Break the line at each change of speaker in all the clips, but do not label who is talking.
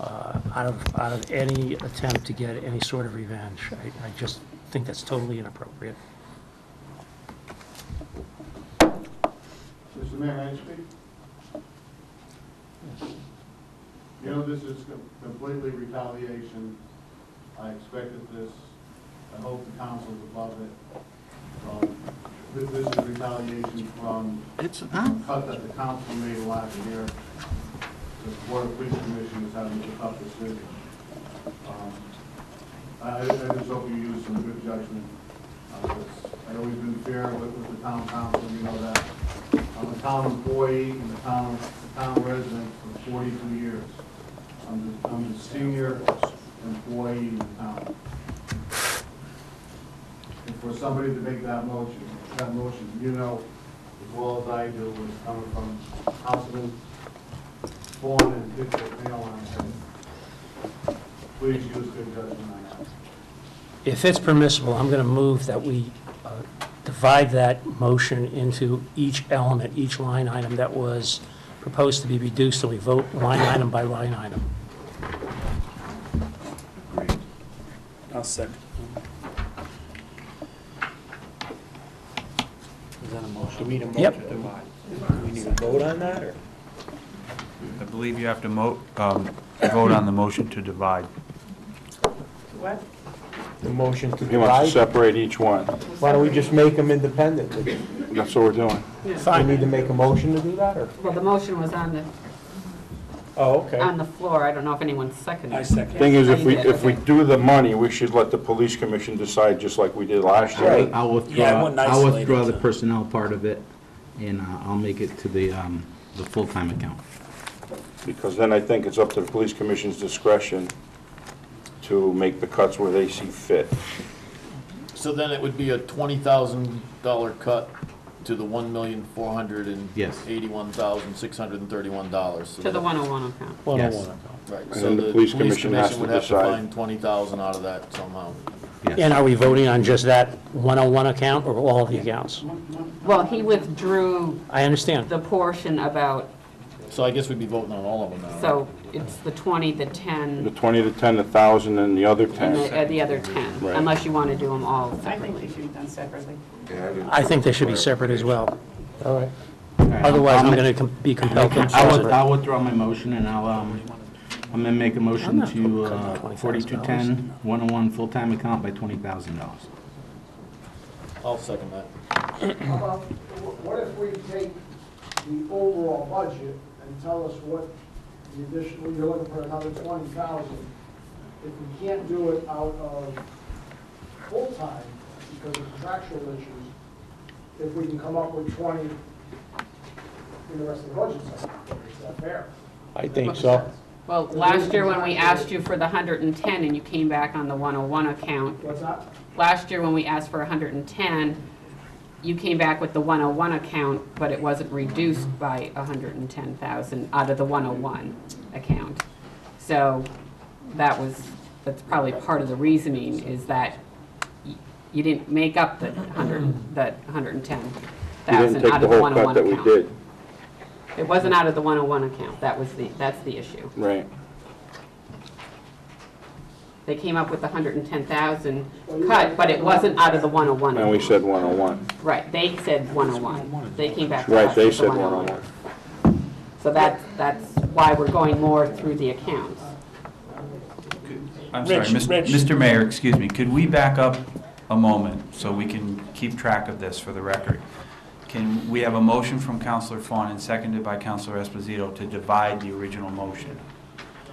uh, out of, out of any attempt to get any sort of revenge. I, I just think that's totally inappropriate.
Mr. Mayor, may I speak? You know, this is com- completely retaliation. I expected this. I hope the council's above it. Um, This this is retaliation from
It's
the
not.
cut that the council made last year. The Board of Police Commission is having to cut this decision. Um, I I- I just hope you use some good judgment. Uh, it's- I've always been fair with with the town council, you know that. I'm a town employee and a town, a town resident for 42 years. I'm the- I'm the senior employee in the town. And for somebody to make that motion, that motion, you know as well as I do, was coming from Councilman Vaughn and District Mayor on it. Please use good judgment on that.
If it's permissible, I'm going to move that we uh, divide that motion into each element, each line item that was proposed to be reduced, so we vote line item by line item.
I'll second.
Is that a motion? We need a
Yep.
motion to divide. Do we need to vote on that, or?
I believe you have to mo, um, vote on the motion to divide.
What?
The motion to
He wants to
divide?
separate each one.
Why don't we just make them independently?
That's what we're doing.
Do we need to make a motion to do that, or?
Well, the motion was on the,
Oh, okay.
on the floor. I don't know if anyone seconded.
I
it.
second.
Thing is, if we,
Yeah, you did,
if we
okay.
do the money, we should let the police commission decide, just like we did last year.
I'll
Yeah, I
withdraw,
wouldn't
I'll
isolate
withdraw
it,
the
so.
personnel part of it, and uh, I'll make it to the, um, the full-time account.
Because then I think it's up to the police commission's discretion to make the cuts where they see fit.
So then it would be a twenty thousand dollar cut to the one million four hundred and eighty-one thousand six hundred and thirty-one dollars.
To the 101 account.
Yes.
Right,
And
so
then
the police commission
has to
would have to
decide.
find twenty thousand out of that somehow.
And
Yes.
are we voting on just that 101 account or all of the accounts?
Well, he withdrew
I understand.
the portion about,
So I guess we'd be voting on all of them now. right?
so it's the 20, the
The
10,
20 to 10, the 1,000, and the other
and the,
10.
uh, the other 10,
Right.
unless you want to do them all
I think
separately.
they should be done separately.
I think they should be separate as well.
All right.
Otherwise, I'm going to be compelled to
I'll with-
separate.
I'll withdraw my motion, and I'll, um, I'm gonna make a
I'm
motion
not
to
cutting the
uh,
$20,000.
4210, 101 full-time account by $20,000.
I'll second that.
about, wh- what if we take the overall budget and tell us what the additional, you're looking for another twenty thousand? If we can't do it out of full-time because of contractual issues, if we can come up with twenty in the rest of the budget cycle, is that fair?
I think so.
Well, last year when we asked you for the 110 and you came back on the 101 account,
What's that?
last year when we asked for 110, you came back with the 101 account, but it wasn't reduced by 110,000 out of the 101 account. So that was, that's probably part of the reasoning is that y- you didn't make up the 100, that
You didn't
110,000
take
out
the
of the
whole cut
101
that we
account.
did.
It wasn't out of the 101 account, that was the, that's the issue.
Right.
They came up with the 110,000 cut, but it wasn't out of the 101
And
account.
we said 101.
Right, they said 101. They came back. to
Right,
us
they
with the oh
said 101.
So that, that's why we're going more through the accounts.
I'm sorry,
Rich,
Mis-
Rich.
Mr. Mayor, excuse me, could we back up a moment so we can keep track of this for the record? Can, we have a motion from Counselor Fawn and seconded by Counselor Esposito to divide the original motion.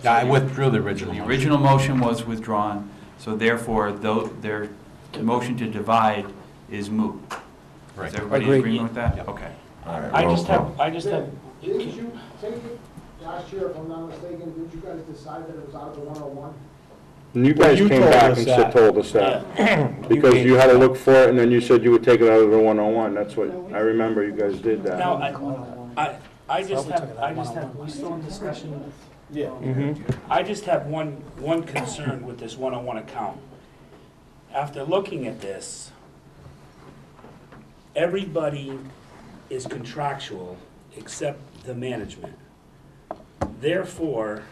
I withdrew the original
The
motion.
original motion was withdrawn, so therefore, though, their motion to divide is moot. Is everybody in
Agreed.
agreement with that? Okay.
I just have, I just have,
Did didn't you take it last year, if I'm not mistaken, did you guys decide that it was out of the one oh one?
And you
Well,
guys
you
came
told
back
us
and said,
that.
told us that. Because you had to look for it, and then you said you would take it out of the 101. That's what, I remember you guys did that.
Now, I, I, I just have, I just have, we still in discussion? Yeah. I just have one, one concern with this one-on-one account. After looking at this, everybody is contractual except the management. Therefore,